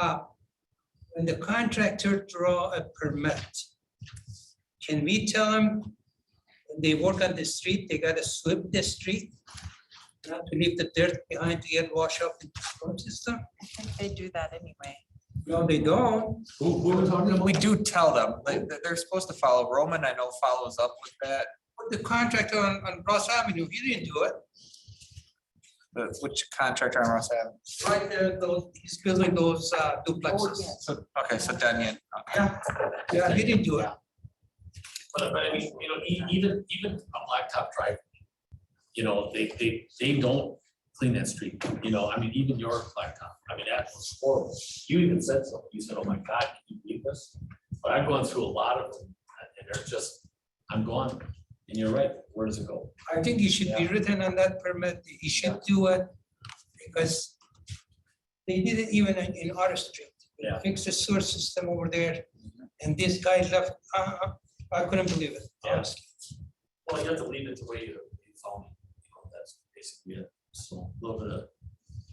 up when the contractor draw a permit. Can we tell them, when they work on the street, they gotta sweep the street? Not to leave the dirt behind to get washed up in the storm system? I think they do that anyway. No, they don't. Who, who are we talking We about? do tell them, they, they- they're supposed to follow. Roman, I know, follows up with that, But The contractor on, on Ross Avenue, he didn't do it. the, which contractor I'm have. Right there, those, he's building those uh, duplexes. So, okay, so Daniel, Yeah, yeah, he didn't do it. But, but I mean, you know, e- even, even a blacktop drive, you know, they, they, they don't clean that street, you know, I mean, even your blacktop, I mean, that was horrible. You even said so, you said, oh my God, can you believe this? But I've gone through a lot of them, and they're just, I'm gone, and you're right, where does it go? I think it should be written on that permit, he should do it, because they did it even in in our street. They Yeah. Fixed the sewer system over there, and this guy left, uh, uh, I couldn't believe it, Yeah. honestly. Well, you have to leave it the way you, you found it, you know, that's basically it, so a little bit of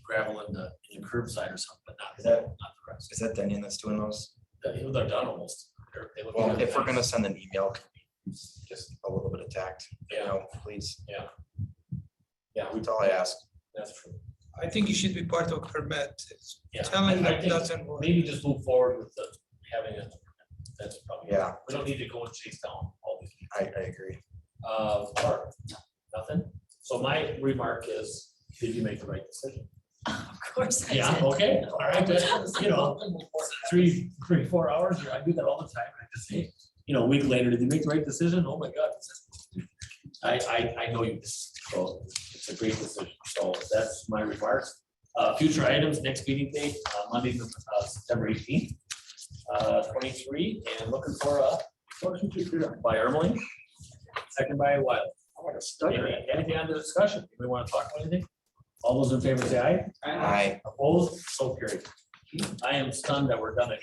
gravel in the, in the curbside or something, but not, not the rest. Is that Daniel that's doing those? They- They're done almost. They're- they look Well, good. if we're gonna send an email, can we just a little bit of tact, you Yeah. know, please. Yeah. Yeah, that's all I ask. That's true. I think it should be part of permit, Yeah. telling I them think doesn't work. Maybe just move forward with the, having it. That's probably. Yeah. We don't need to go and chase down all these. I, I agree. Uh, Barb, nothing? So my remark is, did you make the right decision? Of course I Yeah, did. okay, all right, that's, you know, three, three, four hours, I do that all the time, I just say, you know, a week later, did you make the right decision? Oh my God. this is- I, I, I know you, so it's a great decision, so that's my remarks. Uh, future items, next meeting date, uh, Monday, uh, September eighteenth, uh, twenty-three, and looking for a motion to adjourn by Ermeling, second by Wild. I want to study. Anything on the discussion, we want to talk about anything? All those in favor say aye. Aye. Opposed, so carried. I am stunned that we're done at